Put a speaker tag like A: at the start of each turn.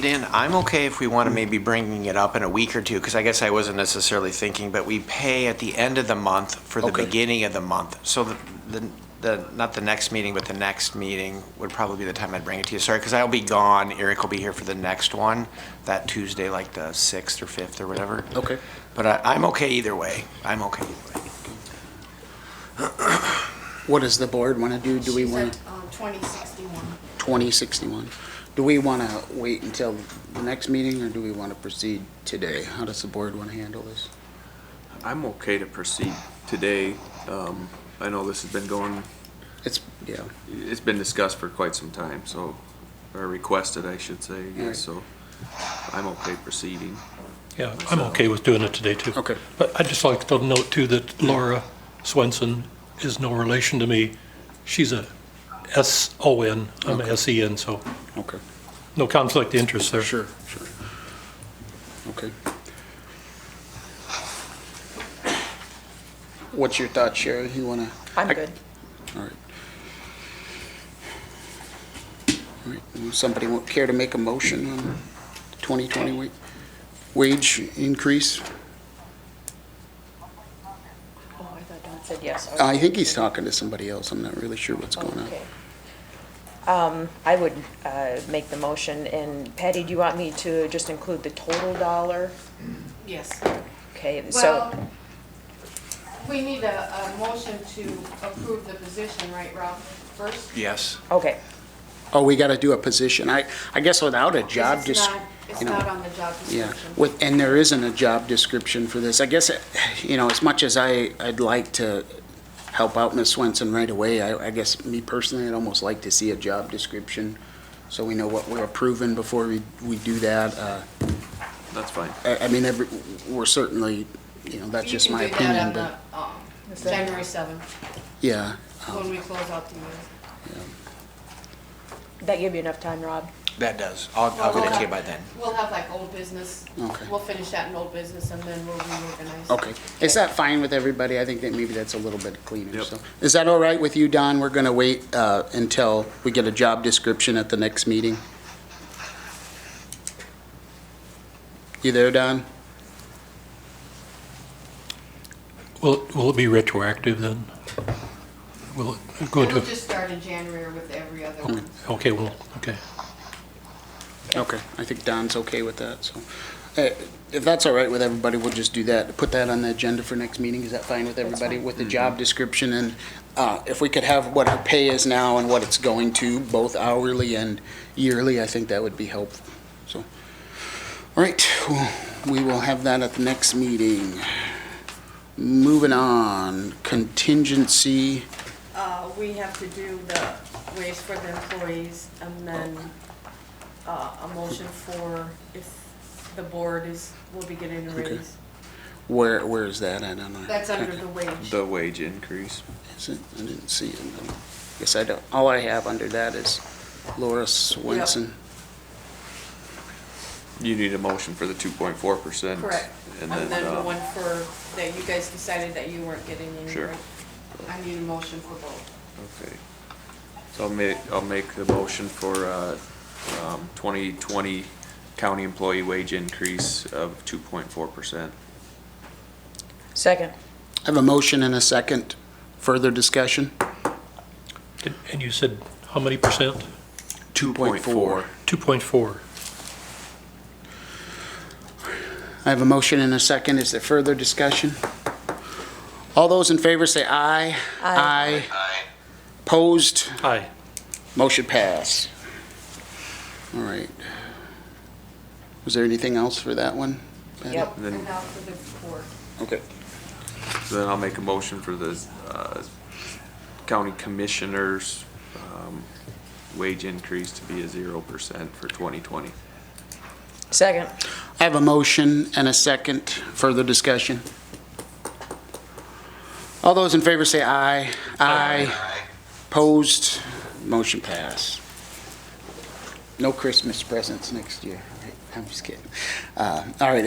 A: Dan, I'm okay if we want to maybe bringing it up in a week or two, because I guess I wasn't necessarily thinking, but we pay at the end of the month for the
B: Okay.
A: beginning of the month. So the, the- the, not the next meeting, but the next meeting would probably be the time I'd bring it to you. Sorry, because I'll be gone. Eric will be here for the next one, that Tuesday, like the 6th or 5th or whatever.
B: Okay.
A: But I, I'm okay either way. I'm okay either way.
B: What does the board want to do? Do we
C: She's
B: want
C: at, um, 2061.
B: 2061? Do we want to wait until the next meeting, or do we want to proceed today? How does the board want to handle this?
D: I'm okay to proceed today. Um, I know this has been going,
B: It's, yeah,
D: it's been discussed for quite some time, so, or requested, I should say, I guess, so I'm okay proceeding.
E: Yeah, I'm okay with doing it today, too.
B: Okay.
E: But I'd just like to note, too, that Laura Swenson is no relation to me. She's a S-O-N, I'm a S-E-N, so
B: okay.
E: no conflict of interest there.
B: Sure, sure. Okay. What's your thought, Sherry? You want to,
F: I'm good.
B: all right. All right. Would Somebody wa- care to make a motion on 2020 wa- wage increase?
F: Oh, I thought Don said yes.
B: I think he's talking to somebody else. I'm not really sure what's going on.
F: Okay. Um, I would uh, make the motion, and Patty, do you want me to just include the total dollar?
C: Yes.
F: Okay, so,
C: Well, we need a, a motion to approve the position, right, Rob, first?
A: Yes.
F: okay,
B: Oh, we got to do a position. I, I guess without a
C: 'Cause
B: job,
C: it's
B: just,
C: not- It's
B: you know.
C: not on the job
B: Yeah,
C: description.
B: with, and there isn't a job description for this. I guess, you know, as much as I, I'd like to help out Ms. Swenson right away, I, I guess me personally, I'd almost like to see a job description so we know what we're approving before we, we do that. Uh,
D: That's fine.
B: I, I mean, every, we're certainly, you know, that's just my
C: You
B: opinion,
C: can do that
B: but, Oh.
C: on the, um,
F: Is that-
C: January 7th,
B: yeah.
C: when we close out the year.
F: that give you enough time, Rob?
A: That does. I'll, I'll
C: Well,
A: get it to you
C: we'll
A: by
C: have-
A: then.
C: We'll have like old business.
B: Okay.
C: We'll finish that in old business and then we'll reorganize.
B: Okay. Is that fine with everybody? I think that maybe that's a little bit cleaner,
D: Yep.
B: so. Is that all right with you, Don? We're gonna wait, uh, until we get a job description at the next meeting? You there, Don?
E: Will, will it be retroactive then? Will it go
C: We'll
E: into,
C: just start in January with every other one.
E: okay, well, okay.
B: Okay, I think Don's okay with that, so. Uh, If that's all right with everybody, we'll just do that, put that on the agenda for next meeting, is that fine with everybody? With the job description and, uh, if we could have what our pay is now and what it's going to, both hourly and yearly, I think that would be helpful, so. All right, well, we will have that at the next meeting. Moving on, contingency,
C: Uh, we have to do the raise for the employees and then, uh, a motion for if the board is, will be getting a
B: Okay.
C: raise.
B: where, where is that? I don't know.
C: That's under the wage.
D: The wage increase.
B: Is it? I didn't see it. Guess I don't, all I have under that is Laura Swenson.
D: You need a motion for the two point four percent.
C: Correct.
D: And
C: And then the
D: uh,
C: one for, that you guys decided that you weren't getting any.
D: Sure.
C: raise. I need a motion for both.
D: Okay. So I'll make, I'll make the motion for, uh, um, twenty twenty county employee wage increase of two point four percent.
F: Second.
B: I have a motion and a second. Further discussion?
E: And- And you said how many percent?
B: 2.4.
E: 2.4.
B: I have a motion and a second. Is there further discussion? All those in favor say aye.
F: Aye.
B: Aye. Opposed?
E: Aye.
B: Motion pass. All right. Was there anything else for that one? Patty?
F: Yep.
D: Then-
C: And now for the board.
B: Okay.
D: Then I'll make a motion for the uh, county commissioners' um, wage increase to be a zero percent for 2020.
F: Second.
B: I have a motion and a second. Further discussion? All those in favor say aye. Aye. Opposed? Motion pass. No Christmas presents next year. I'm just kidding. Uh, All right,